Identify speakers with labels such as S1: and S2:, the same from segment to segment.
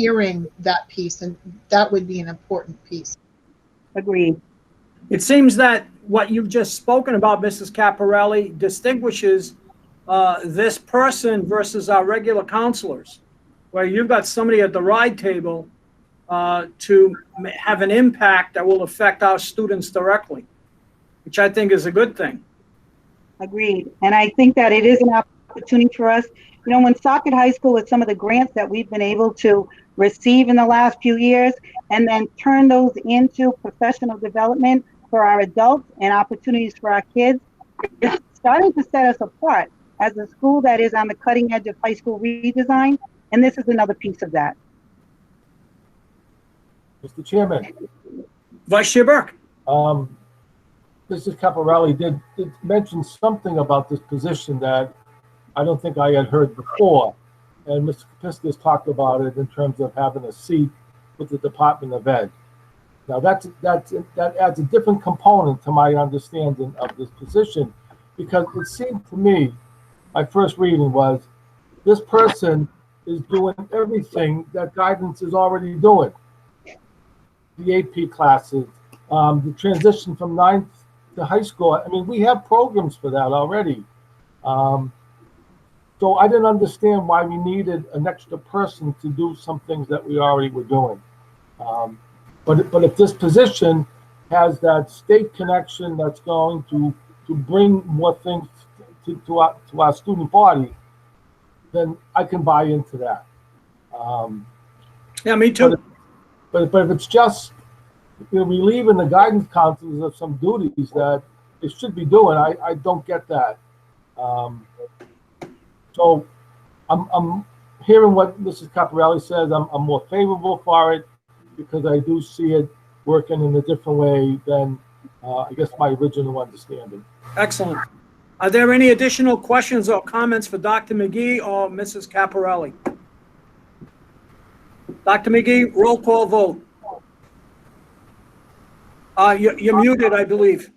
S1: hearing that piece, and that would be an important piece.
S2: Agreed.
S3: It seems that what you've just spoken about, Mrs. Caparelli, distinguishes uh, this person versus our regular counselors, where you've got somebody at the ride table uh, to m- have an impact that will affect our students directly, which I think is a good thing.
S2: Agreed. And I think that it is an opportunity for us. You know, when Socket High School, with some of the grants that we've been able to receive in the last few years, and then turn those into professional development for our adults and opportunities for our kids, it's starting to set us apart as a school that is on the cutting edge of high school redesign. And this is another piece of that.
S4: Mr. Chairman,
S3: Vice Chair Burke?
S4: um, Mrs. Caporelli did, did mention something about this position that I don't think I had heard before. And Mr. Kapiskas talked about it in terms of having a seat with the Department of Ed. Now, that's, that's, that adds a different component to my understanding of this position because it seemed to me, my first reading was, this person is doing everything that guidance is already doing. The AP classes, um, the transition from ninth to high school. I mean, we have programs for that already. Um, so I didn't understand why we needed an extra person to do some things that we already were doing. Um, but but if this position has that state connection that's going to to bring more things to, to our to our student body, then I can buy into that. Um,
S3: Yeah, me too.
S4: but, but if it's just you know, relieving the guidance counselors of some duties that it should be doing, I, I don't get that. Um, so I'm, I'm hearing what Mrs. Caparelli says. I'm, I'm more favorable for it because I do see it working in a different way than uh, I guess my original understanding.
S3: Excellent. Are there any additional questions or comments for Dr. McGee or Mrs. Caparelli? Dr. McGee, roll call vote. Uh, you- You're muted, I believe.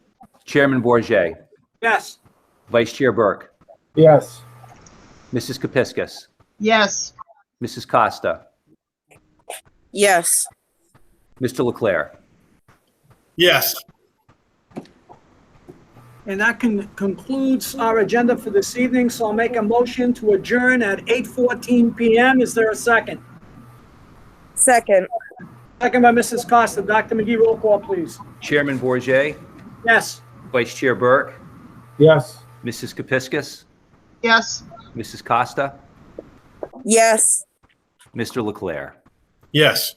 S5: Chairman Bourget,
S3: Yes.
S5: Vice Chair Burke,
S4: Yes.
S5: Mrs. Kepiscus,
S1: Yes,
S5: Mrs. Costa,
S6: Yes,
S5: Mr. Leclerc.
S7: Yes,
S3: And that con- concludes our agenda for this evening, so I'll make a motion to adjourn at 8:14 PM. Is there a second?
S6: second,
S3: Second by Mrs. Costa. Dr. McGee, roll call, please.
S5: Chairman Bourget,
S3: Yes.
S5: Vice Chair Burke,
S4: Yes.
S5: Mrs. Kepiscus,
S1: yes.
S5: Mrs. Costa,
S6: yes.
S5: Mr. Leclerc.
S7: yes.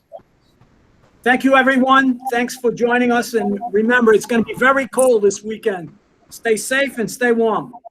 S3: Thank you, everyone. Thanks for joining us, and remember, it's going to be very cold this weekend. Stay safe and stay warm.